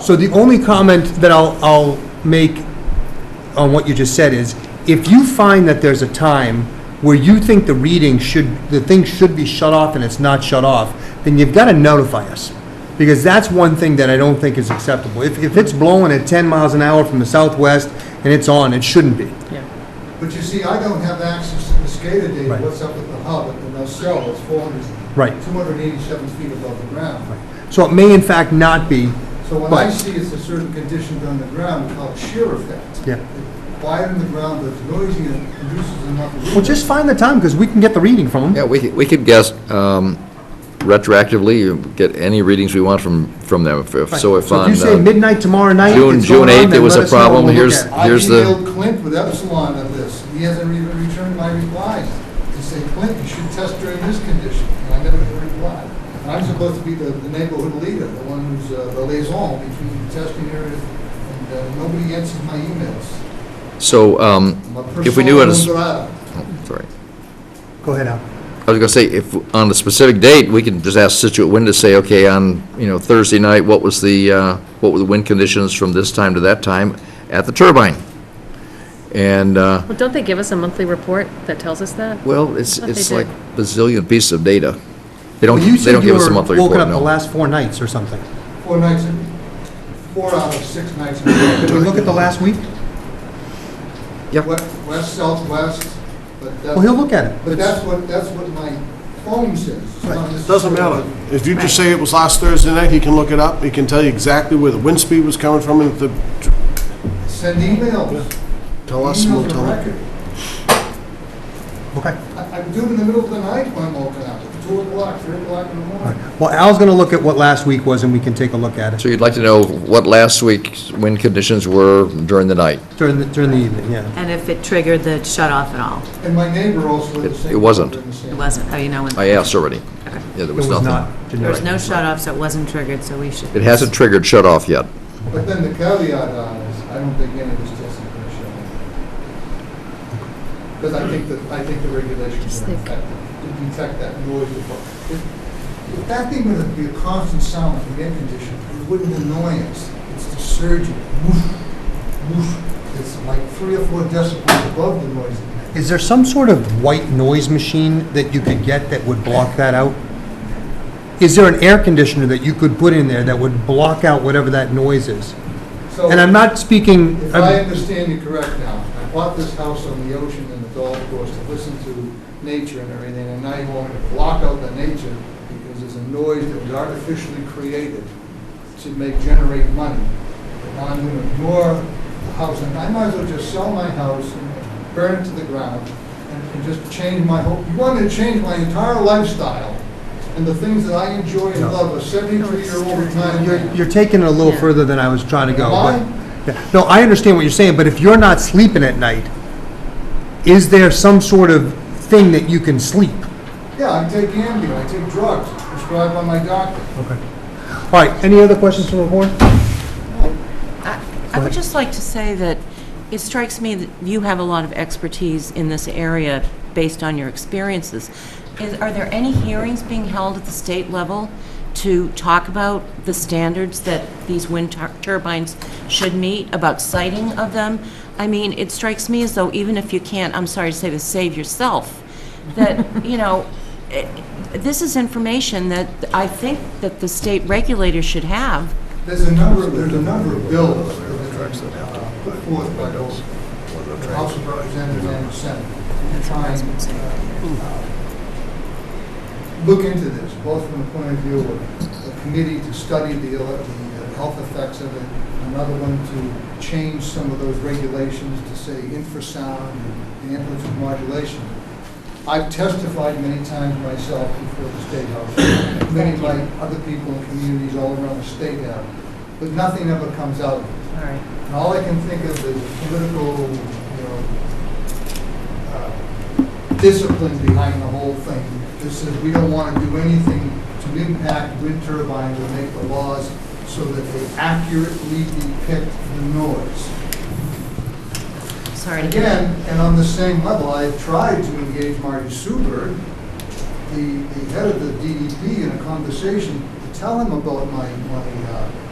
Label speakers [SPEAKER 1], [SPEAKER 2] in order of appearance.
[SPEAKER 1] So the only comment that I'll, I'll make on what you just said is, if you find that there's a time where you think the reading should, the thing should be shut off and it's not shut off, then you've got to notify us. Because that's one thing that I don't think is acceptable. If, if it's blowing at 10 miles an hour from the southwest and it's on, it shouldn't be.
[SPEAKER 2] But you see, I don't have access to the SCADA
[SPEAKER 1] Right.
[SPEAKER 2] data, what's up with the hub, and the cell is 400,
[SPEAKER 1] Right.
[SPEAKER 2] 287 feet above the ground.
[SPEAKER 1] So it may in fact not be,
[SPEAKER 2] So what I
[SPEAKER 1] Right.
[SPEAKER 2] see is a certain condition on the ground called shear effect.
[SPEAKER 1] Yeah.
[SPEAKER 2] Quiet in the ground, but it's noisy and produces enough.
[SPEAKER 1] well, just find the time because we can get the reading from
[SPEAKER 3] Yeah,
[SPEAKER 1] them.
[SPEAKER 3] we could, we could guess um, retroactively, you get any readings we want from, from them. If- if- So if
[SPEAKER 1] you
[SPEAKER 3] on
[SPEAKER 1] say
[SPEAKER 3] uh,
[SPEAKER 1] midnight tomorrow night, it's
[SPEAKER 3] June,
[SPEAKER 1] going
[SPEAKER 3] June
[SPEAKER 1] on,
[SPEAKER 3] 8th, there
[SPEAKER 1] then
[SPEAKER 3] was
[SPEAKER 1] let
[SPEAKER 3] a
[SPEAKER 1] us know and
[SPEAKER 3] problem,
[SPEAKER 1] we'll look
[SPEAKER 3] here's,
[SPEAKER 1] at it.
[SPEAKER 3] here's
[SPEAKER 2] I
[SPEAKER 3] the,
[SPEAKER 2] emailed Clint with Epsilon on this, he hasn't even returned my replies. To say, Clint, you should test during this condition, and I never got a reply. And I'm supposed to be the the neighborhood leader, the one who's uh, the liaison between the testing areas, and uh, nobody answers my emails.
[SPEAKER 3] so um,
[SPEAKER 2] My
[SPEAKER 3] if we knew it
[SPEAKER 2] persona
[SPEAKER 3] is,
[SPEAKER 2] non grata.
[SPEAKER 3] sorry.
[SPEAKER 1] Go ahead, Al.
[SPEAKER 3] I was going to say, if, on the specific date, we can just ask Situate Wind to say, okay, on, you know, Thursday night, what was the, uh, what were the wind conditions from this time to that time at the turbine? And, uh,
[SPEAKER 4] Well, don't they give us a monthly report that tells us that?
[SPEAKER 3] well, it's,
[SPEAKER 4] But they
[SPEAKER 3] it's
[SPEAKER 4] do.
[SPEAKER 3] like bazillion pieces of data. They don't,
[SPEAKER 1] Well, you
[SPEAKER 3] they
[SPEAKER 1] said
[SPEAKER 3] don't
[SPEAKER 1] you
[SPEAKER 3] give us a
[SPEAKER 1] were
[SPEAKER 3] monthly report,
[SPEAKER 1] Woken up the
[SPEAKER 3] no.
[SPEAKER 1] last four nights or something.
[SPEAKER 2] Four nights, in- four out of six nights. in
[SPEAKER 1] Did we look at the last week?
[SPEAKER 3] Yeah.
[SPEAKER 2] West- West, southwest, but that's.
[SPEAKER 1] Well, he'll look at it.
[SPEAKER 2] But that's what, that's what my phone says. It's not
[SPEAKER 5] It Doesn't
[SPEAKER 2] necessarily-
[SPEAKER 5] matter. If you just say it was last Thursday night, he can look it up, he can tell you exactly where the wind speed was coming from, and if the,
[SPEAKER 2] Send emails.
[SPEAKER 5] tell us, and we'll
[SPEAKER 2] Emails are
[SPEAKER 5] tell him.
[SPEAKER 2] record.
[SPEAKER 1] Okay.
[SPEAKER 2] I, I do it in the middle of the night when I'm woken up, at two o'clock, three o'clock in the
[SPEAKER 1] All
[SPEAKER 2] morning.
[SPEAKER 1] right. Well, Al's going to look at what last week was, and we can take a look at
[SPEAKER 3] So
[SPEAKER 1] it
[SPEAKER 3] you'd like to know what last week's wind conditions were during the night?
[SPEAKER 1] during, the during the evening, yeah.
[SPEAKER 6] And if it triggered the shut-off at all?
[SPEAKER 2] And my neighbor also did the
[SPEAKER 3] It-
[SPEAKER 2] same.
[SPEAKER 3] it wasn't.
[SPEAKER 2] thing, the same.
[SPEAKER 6] It wasn't, oh, you know, when,
[SPEAKER 3] I asked already.
[SPEAKER 6] Okay.
[SPEAKER 3] Yeah, there
[SPEAKER 1] It
[SPEAKER 3] was
[SPEAKER 1] was not
[SPEAKER 3] nothing.
[SPEAKER 6] there was
[SPEAKER 1] generic.
[SPEAKER 6] no shut-off, so it wasn't triggered, so we should...
[SPEAKER 3] It hasn't triggered shut-off yet.
[SPEAKER 2] But then the caveat on is, I don't think any of this testing is going to show. Because I think that, I think the regulations
[SPEAKER 4] Just
[SPEAKER 2] are
[SPEAKER 4] think.
[SPEAKER 2] effective to detect that noise. before. If if that thing would be a constant sound from the air conditioner, it wouldn't annoy us. It's the surging, woof, woof. It's like three or four decibels above the noise.
[SPEAKER 1] Is there some sort of white noise machine that you could get that would block that out? Is there an air conditioner that you could put in there that would block out whatever that noise is?
[SPEAKER 2] So-
[SPEAKER 1] And I'm not speaking,
[SPEAKER 2] If I
[SPEAKER 1] I'm-
[SPEAKER 2] understand you correct now, I bought this house on the ocean and the golf course to listen to nature and everything, and now you want me to block out the nature because there's a noise that was artificially created to make, generate money. But now I'm gonna ignore the house, and I might as well just sell my house and burn it to the ground and and just change my whole, you want me to change my entire lifestyle and the things that I enjoy and
[SPEAKER 1] No.
[SPEAKER 2] love, a seventy-three-year-old retired
[SPEAKER 1] you're,
[SPEAKER 2] man.
[SPEAKER 1] you're taking it a little
[SPEAKER 4] Yeah.
[SPEAKER 1] further than I was trying to go.
[SPEAKER 2] Am
[SPEAKER 1] but-
[SPEAKER 2] I?
[SPEAKER 1] Yeah. No, I understand what you're saying, but if you're not sleeping at night, is there some sort of thing that you can sleep?
[SPEAKER 2] Yeah, I take Ambien, I take drugs prescribed by my doctor.
[SPEAKER 1] Okay. All right, any other questions from the board?
[SPEAKER 6] I I would just like to say that it strikes me that you have a lot of expertise in this area based on your experiences. Is- Are there any hearings being held at the state level to talk about the standards that these wind tur- turbines should meet, about sighting of them? I mean, it strikes me as though even if you can't, I'm sorry to say this, save yourself, that, you know, eh, this is information that I think that the state regulator should have.
[SPEAKER 2] There's a number, there's a number of bills that have been uh, put forth by those House of Representatives and the Senate to try and uh, look into this, both from the point of view of the committee to study the uh, the, uh, health effects of it, another one to change some of those regulations to say infrasound and amplitude modulation. I've testified many times myself before the State House, many by other people in communities all around the state have, but nothing ever comes out of it.
[SPEAKER 6] All right.
[SPEAKER 2] And all I can think of is political, you know, uh, discipline behind the whole thing. This is, we don't want to do anything to impact wind turbines or make the laws so that they accurately depict the noise.
[SPEAKER 6] Sorry to hear that.
[SPEAKER 2] Again, and on the same level, I tried to engage Marty Suberg, the, the head of the DEP, in a conversation to tell him about my, my uh,